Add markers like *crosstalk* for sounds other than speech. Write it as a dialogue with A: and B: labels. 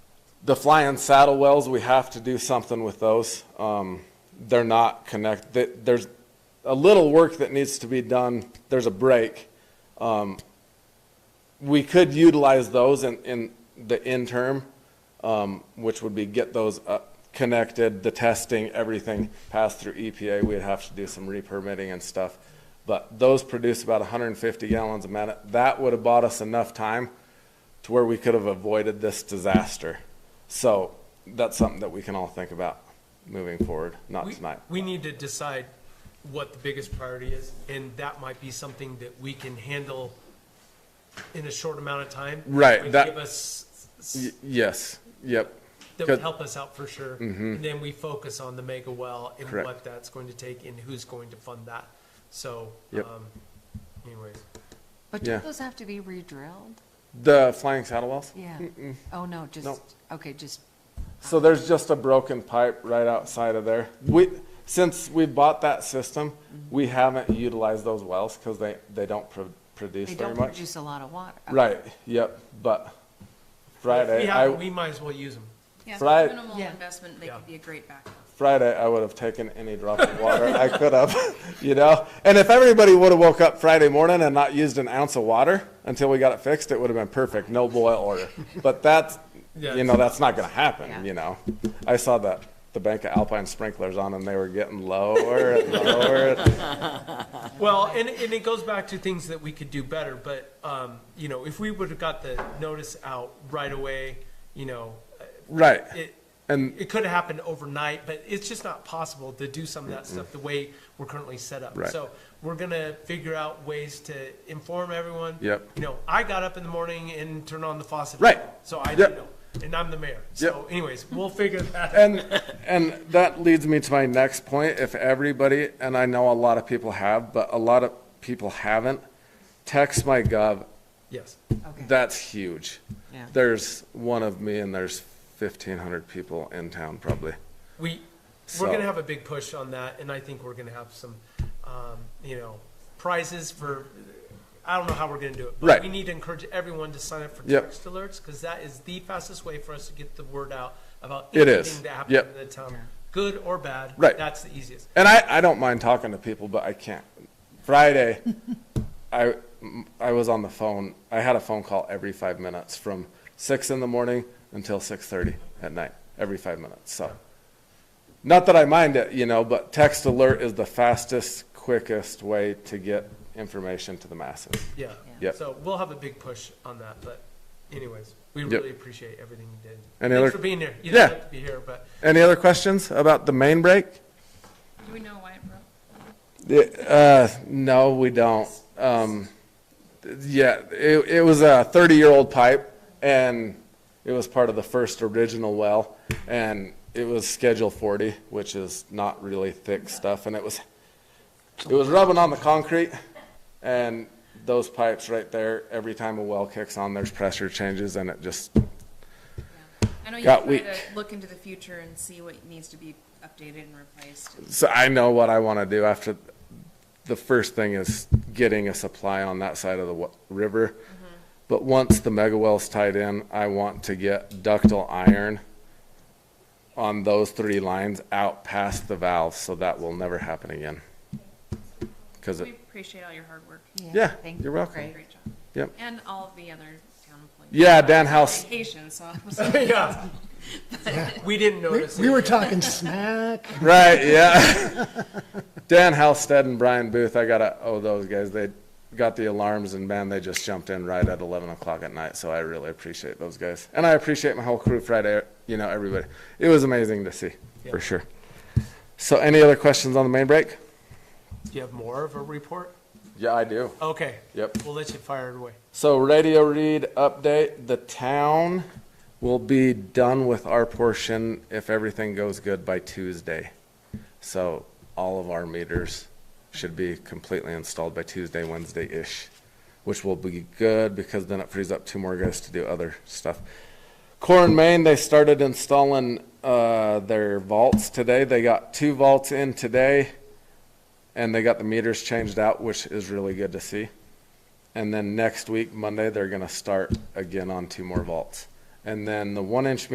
A: The flying saddle wells, we have to do something with those. Um, they're not connect, th- there's a little work that needs to be done. There's a break. Um, we could utilize those in, in the interim, um, which would be get those uh, connected, the testing, everything passed through EPA. We'd have to do some re-permitting and stuff. But those produce about 150 gallons a minute. That would have bought us enough time to where we could have avoided this disaster. So that's something that we can all think about moving forward, not
B: We-
A: tonight.
B: We need to decide what the biggest priority is, and that might be something that we can handle in a short amount of time.
A: Right,
B: Would
A: that-
B: Give us,
A: Y- Yes, yep, good.
B: that
A: Mm-hmm.
B: would help us out for sure. And then we focus on the mega well and
A: Correct.
B: what that's going to take and who's going to fund that. So,
A: Yep.
B: um, anyways,
C: But
A: Yeah.
C: do those have to be re-drilled?
A: The flying saddle wells?
C: Yeah. Oh, no, just,
A: Nope.
C: okay, just,
A: So there's just a broken pipe right outside of there. We, since we bought that system, we haven't utilized those wells because they, they don't pro- produce
C: they
A: very
C: don't
A: much.
C: produce a lot of water. Okay.
A: Right, yep, but
B: if
A: Friday,
B: we have, it,
A: I,
B: we might as well use them.
D: Yeah,
A: Right.
D: minimal
C: Yeah.
D: investment, they
B: Yeah.
D: could be a great backup.
A: Friday, I would have taken any drop of water I could have, *laughs* you know? And if everybody would have woke up Friday morning and not used an ounce of water until we got it fixed, it would have been perfect, no boil order. But that's,
B: Yeah,
A: you know, that's not gonna
C: Yeah.
A: happen, you know? I saw that, the bank of Alpine sprinklers on and they were getting lower and lower.
B: Well, and, and it goes back to things that we could do better, but, um, you know, if we would have got the notice out right away, you know, uh,
A: Right,
B: it,
A: and,
B: it could happen overnight, but it's just not possible to do some of that stuff the way we're currently set up.
A: Right.
B: So we're gonna figure out ways to inform everyone.
A: Yep.
B: You know, I got up in the morning and turned on the faucet.
A: Right.
B: So I
A: Yep.
B: didn't know, and I'm the mayor. So anyways, we'll figure that out.
A: and, and that leads me to my next point. If everybody, and I know a lot of people have, but a lot of people haven't, text my gov
B: Yes.
C: Okay.
A: That's huge.
C: Yeah.
A: There's one of me and there's fifteen hundred people in town probably.
B: We,
A: So-
B: we're gonna have a big push on that, and I think we're gonna have some, um, you know, prizes for, I don't know how we're gonna do it.
A: Right.
B: But we need to encourage everyone to sign up for
A: Yep.
B: text alerts, because that is the fastest way for us to get the word out about
A: It is.
B: anything that happens
A: Yep.
B: in the town, good or bad.
A: Right.
B: That's the easiest.
A: And I, I don't mind talking to people, but I can't.
C: *laughs*
A: Friday, I, I was on the phone. I had a phone call every five minutes from six in the morning until six thirty at night, every five minutes. So, not that I mind it, you know, but text alert is the fastest, quickest way to get information to the masses.
B: Yeah.
A: Yep.
B: So we'll have a big push on that, but anyways, we
A: Yep.
B: really appreciate everything you did.
A: Any other-
B: Thanks for being here. You didn't
A: Yeah.
B: have to be here, but *laughs*
A: Any other questions about the main break?
D: Do we know why it broke?
A: Uh, no, we don't. Um, th- yeah, it, it was a thirty-year-old pipe and it was part of the first original well. And it was schedule forty, which is not really thick stuff. And it was, it was rubbing on the concrete. And those pipes right there, every time a well kicks on, there's pressure changes and it just,
D: I know you
A: Got
D: try
A: weak.
D: to look into the future and see what needs to be updated and replaced.
A: so I know what I want to do after. The first thing is getting a supply on that side of the wa- river. But once the mega well's tied in, I want to get ductile iron on those three lines out past the valves, so that will never happen again. Cause
D: We
A: it,
D: appreciate all your hard work.
A: yeah,
C: thank
A: you're
C: you.
A: welcome.
C: Great.
D: Great job.
A: Yep.
D: And all of the other town employees.
A: yeah, Dan House,
D: Vacation, so.
B: yeah. We didn't notice.
E: We
B: it.
E: were talking *laughs* smack.
A: right, yeah. *laughs* Dan Halstead and Brian Booth, I gotta owe those guys, they got the alarms and man, they just jumped in right at eleven o'clock at night, so I really appreciate those guys. And I appreciate my whole crew Friday, you know, everybody. It was amazing to see,
B: Yeah.
A: for sure. So any other questions on the main break?
B: Do you have more of a report?
A: Yeah, I do.
B: Okay.
A: Yep.
B: We'll let you fire it away.
A: So radio read update, the town will be done with our portion if everything goes good by Tuesday. So all of our meters should be completely installed by Tuesday, Wednesday-ish, which will be good because then it frees up two more guys to do other stuff. Core and Main, they started installing, uh, their vaults today. They got two vaults in today and they got the meters changed out, which is really good to see. And then next week, Monday, they're gonna start again on two more vaults. And then the one inch